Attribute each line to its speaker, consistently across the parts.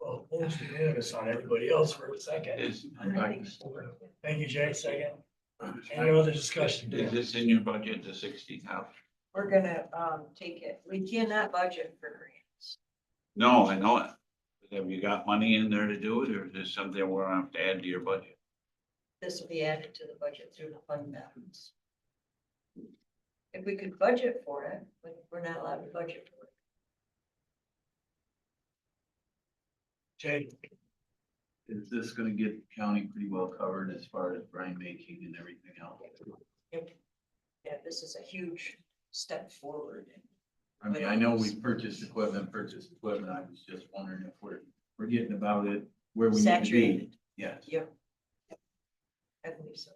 Speaker 1: Well, almost unanimous on everybody else for a second.
Speaker 2: Is, I'd like to-
Speaker 1: Thank you, Jay, second. Any other
Speaker 2: is
Speaker 1: discussion?
Speaker 2: this in your budget, the sixty thousand?
Speaker 3: We're gonna, um, take it, we cannot budget for grants.
Speaker 2: No, I know it. But Have you got money in there to do it, or is this something we're gonna have to add to your budget?
Speaker 3: This will be added to the budget through the fund balance. If we could budget for it, but we're not allowed to budget for it.
Speaker 1: Jay,
Speaker 4: is this gonna get the county pretty well covered as far as brine making and everything else?
Speaker 3: Yeah, this is a huge step forward.
Speaker 4: I mean, I know we purchased equipment, purchased equipment, I was just wondering if we're, we're getting about it where we need to be.
Speaker 3: Saturated,
Speaker 4: Yes,
Speaker 3: yep. I believe so.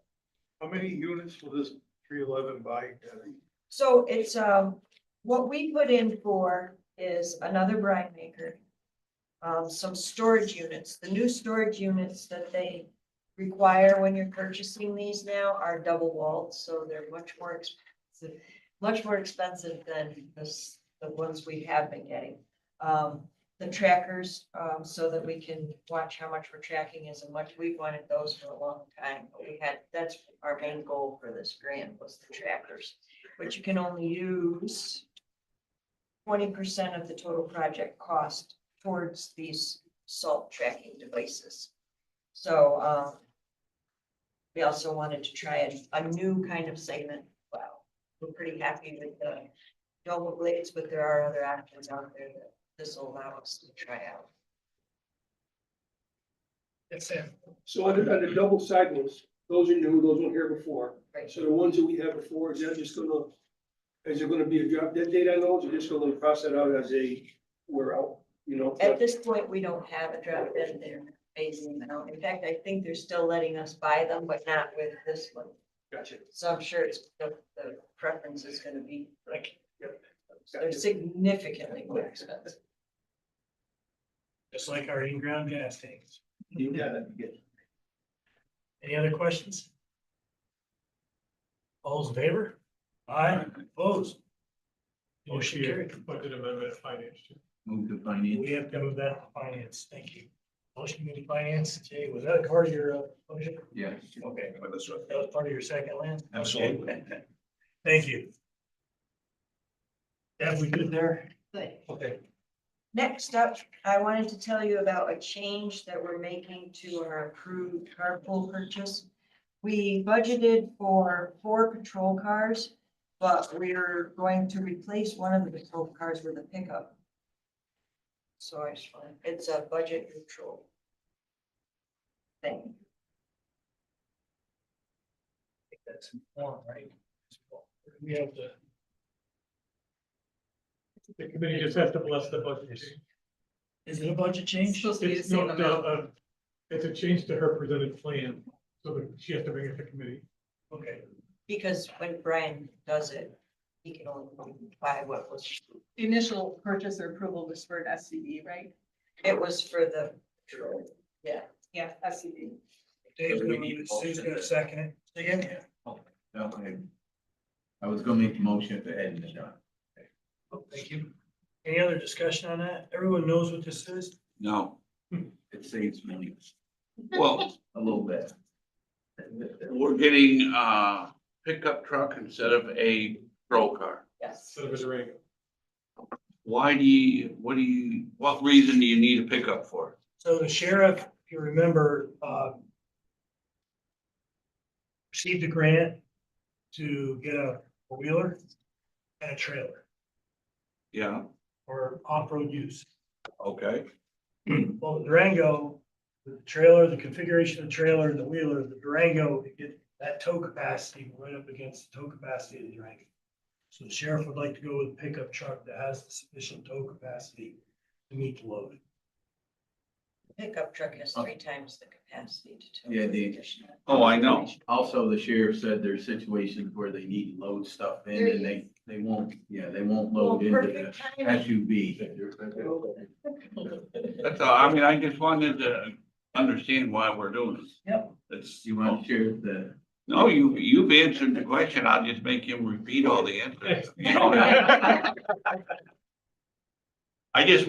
Speaker 5: How many units will this three eleven buy? Debbie?
Speaker 3: So it's, um, what we put in for is another brine maker. Um, some storage units, the new storage units that they require when you're purchasing these now are double walled, so they're much more expensive. Much more expensive than the, s- the ones we have been getting. Um, the trackers, um, so that we can watch how much we're tracking is and much, we've wanted those for a long time. but We had, that's our main goal for this grant was the trackers but you can only use twenty percent of the total project cost towards these salt tracking devices. So, um, we also wanted to try a, a new kind of segment. Wow, we're pretty happy with the double blades, but there are other options out there that this will allow us to try out.
Speaker 1: that's it.
Speaker 6: So under, under double side ones, those are new, those weren't here before.
Speaker 3: Right.
Speaker 6: So the ones that we had before, is that just gonna, is there gonna be a drop dead date on those, or just gonna cross that out as a, we're out, you know?
Speaker 3: At this point, we don't have a drop dead there phasing them out. In fact, I think they're still letting us buy them, but not with this one.
Speaker 6: Gotcha.
Speaker 3: So I'm sure it's, the, the preference is gonna be like, they're
Speaker 6: Gotcha.
Speaker 3: significantly more expensive.
Speaker 1: Just like our in-ground gas tanks.
Speaker 4: yeah, that'd be good.
Speaker 1: Any other questions? All's in favor? Aye, opposed? Motion carried.
Speaker 5: Budget amendment finance.
Speaker 4: Move to finance.
Speaker 1: We have to move that to finance. Thank you. Motion committee finance, Jay, was that a part of your uh, motion?
Speaker 4: Yes.
Speaker 1: Okay, that was part of your second, Lance? Okay.
Speaker 4: Absolutely.
Speaker 1: Thank you. Have we good there?
Speaker 3: Good.
Speaker 1: Okay.
Speaker 3: Next up, I wanted to tell you about a change that we're making to our approved carpool purchase. We budgeted for four patrol cars, but we're going to replace one of the patrol cars with a pickup. So I just want, it's a budget neutral thing.
Speaker 1: That's one, right? We have the.
Speaker 5: The committee just has to bless the budget.
Speaker 1: Is it a budget change?
Speaker 7: Supposed to be the
Speaker 5: It's no-
Speaker 7: same amount.
Speaker 5: uh, uh, It's a change to her presented plan, so that she has to bring it to committee.
Speaker 1: Okay,
Speaker 3: Because when Brian does it, he can only buy what was,
Speaker 7: The initial purchase or approval was for an SCD, right?
Speaker 3: it was for the patrol.
Speaker 7: Yeah, SCD.
Speaker 1: Dave's
Speaker 4: So we need
Speaker 1: gonna,
Speaker 4: a motion.
Speaker 1: Sue's gonna second it. Again,
Speaker 4: Okay. I was gonna make a motion for Ed and John.
Speaker 1: Oh, thank you. Any other discussion on that? Everyone knows what this is?
Speaker 2: No,
Speaker 4: It saves money
Speaker 2: well,
Speaker 4: a little bit.
Speaker 2: we're getting a pickup truck instead of a roll car.
Speaker 7: Yes.
Speaker 5: Instead of a Durango.
Speaker 2: Why do you, what do you, what reason do you need a pickup for?
Speaker 1: So the sheriff, if you remember, uh. Received a grant to get a wheeler and a trailer
Speaker 2: Yeah,
Speaker 1: for off-road use.
Speaker 2: okay,
Speaker 1: Well, the Durango, the trailer, the configuration of the trailer and the wheeler, the Durango, it get that tow capacity right up against the tow capacity of the Durango. So the sheriff would like to go with a pickup truck that has the sufficient tow capacity to meet the load.
Speaker 3: Pickup truck has three times the capacity to tow.
Speaker 4: Oh. Yeah, the-
Speaker 3: additional.
Speaker 2: Oh, I know.
Speaker 4: Also, the sheriff said there's situations where they need to load stuff in and they, they won't, yeah, they won't
Speaker 3: Well,
Speaker 4: load into the
Speaker 3: perfect timing.
Speaker 4: SUV.
Speaker 2: that's all, I mean, I just wanted to understand why we're doing this.
Speaker 1: Yep.
Speaker 2: That's,
Speaker 4: You want to share the,
Speaker 2: no, you, you've answered the question, I'll just make him repeat all the answers. You know that. I just